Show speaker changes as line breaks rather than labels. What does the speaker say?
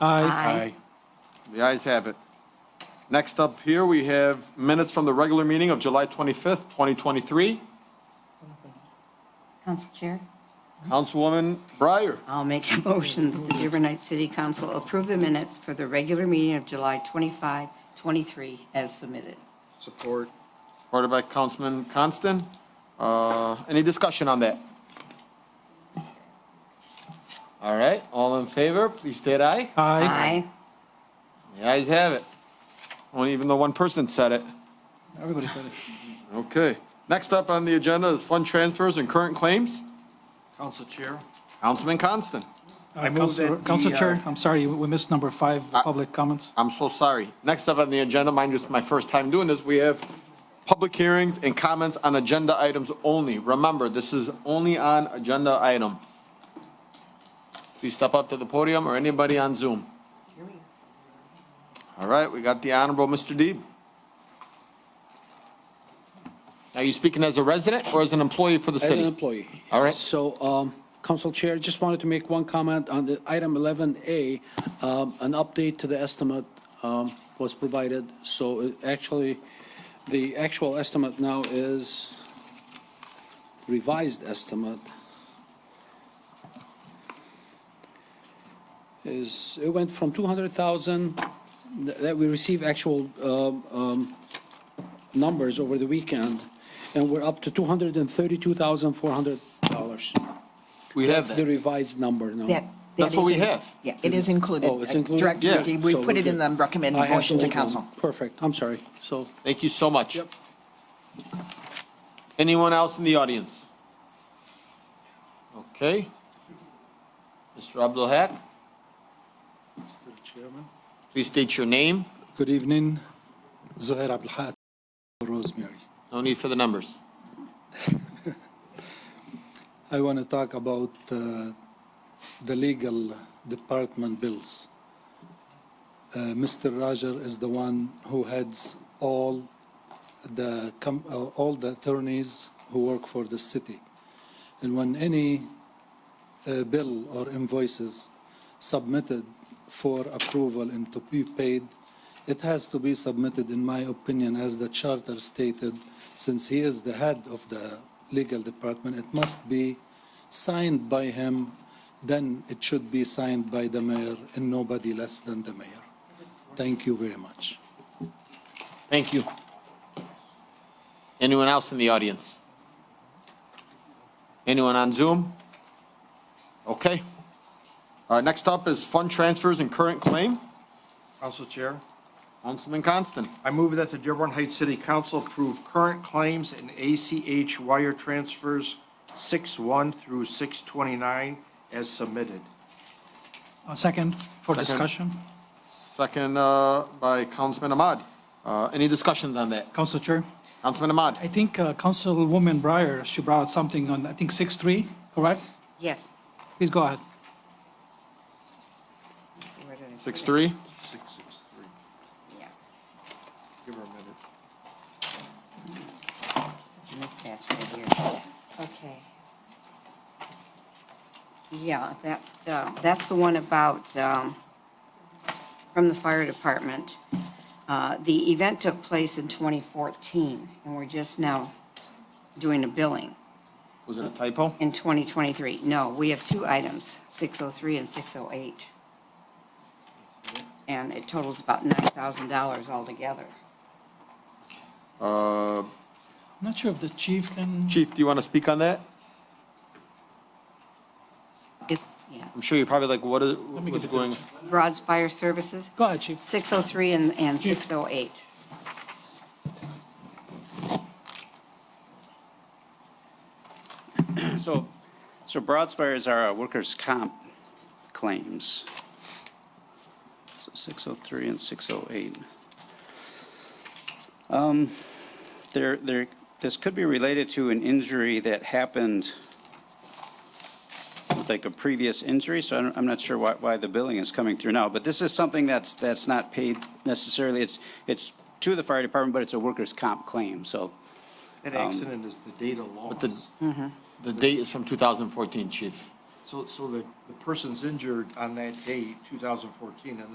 Aye.
The ayes have it. Next up here, we have minutes from the regular meeting of July 25th, 2023.
Council Chair,
Councilwoman Breyer,
I'll make a motion that the Dearborn Heights City Council approve the minutes for the regular meeting of July 25, 23 as submitted.
Support.
supported by Councilman Constant. Uh, Any discussion on that? All right, all in favor, please state aye.
Aye.
The ayes have it. Only even though one person said it.
Everybody said it.
Okay. Next up on the agenda is fund transfers and current claims.
Council Chair.
Councilman Constant.
I move
Council-
that
Council
the,
Uh, Chair,
uh,
I'm sorry, we missed number five,
Uh,
public comments.
I'm so sorry. Next up on the agenda, mind you, it's my first time doing this, we have public hearings and comments on agenda items only. Remember, this is only on agenda item. Please step up to the podium or anybody on Zoom. All right, we got the Honorable Mr. Deeb. Are you speaking as a resident or as an employee for the
As an
city?
employee.
All right.
So, um, Council Chair, just wanted to make one comment on the item 11A. Um, An update to the estimate um, was provided, so it actually, the actual estimate now is revised estimate is, it went from 200,000 that we receive actual um, um, numbers over the weekend, and we're up to two hundred and thirty-two thousand, four hundred dollars.
We have
That's the
that.
revised number now.
That- that
That's what
is
we
in-
have.
Yeah, it is included.
Oh, it's included?
Director
Yeah.
Deeb, we
So
put
we're
it in
good.
the recommended
I have
motion
the
to
old one.
council.
Perfect, I'm sorry. So,
Thank you so much.
Yep.
Anyone else in the audience? Okay. Mr. Abdul Haq,
Mr. Chairman.
please state your name.
Good evening, Zohair Abdelhat, Rosemary.
No need for the numbers.
I want to talk about uh, the legal department bills. Uh, Mr. Roger is the one who heads all the com- uh, all the attorneys who work for the city, and when any uh, bill or invoices submitted for approval and to be paid, it has to be submitted, in my opinion, as the charter stated, since he is the head of the legal department, it must be signed by him, then it should be signed by the mayor and nobody less than the mayor. Thank you very much.
Thank you. Anyone else in the audience? Anyone on Zoom? Okay. Uh, next up is fund transfers and current claim.
Council Chair.
Councilman Constant.
I move that the Dearborn Heights City Council approve current claims and ACH wire transfers 6-1 through 6-29 as submitted.
Uh, Second, for
Second.
discussion.
Second, uh, by Councilman Ahmad. Uh, any discussions on that?
Council Chair,
Councilman Ahmad?
I think uh, Councilwoman Breyer, she brought something on, I think, 6-3, correct?
Yes.
Please go ahead.
Where did I put it?
Six, three?
663.
Yeah,
Give her a minute.
it's in this batch right here. Okay. Yeah, that, uh, that's the one about, um, from the fire department. Uh, The event took place in 2014, and we're just now doing a billing.
Was it a typo?
in 2023. No, we have two items, 603 and 608. And it totals about $9,000 altogether.
Uh,
Not sure if the chief can,
Chief, do you want to speak on that?
It's, yeah,
I'm sure you're probably like, what is,
me
what's
get the
going?
Broadspire Services,
go ahead, chief.
603 and and 608.
So, so Broadspires are our workers' comp claims. So 603 and 608. Um, There, there, this could be related to an injury that happened, like a previous injury, so I'm- I'm not sure why, why the billing is coming through now. But this is something that's, that's not paid necessarily. It's, it's to the fire department, but it's a workers' comp claim, so.
That accident is the data loss.
The date is from 2014, Chief.
So, so the, the person's injured on that day, 2014, and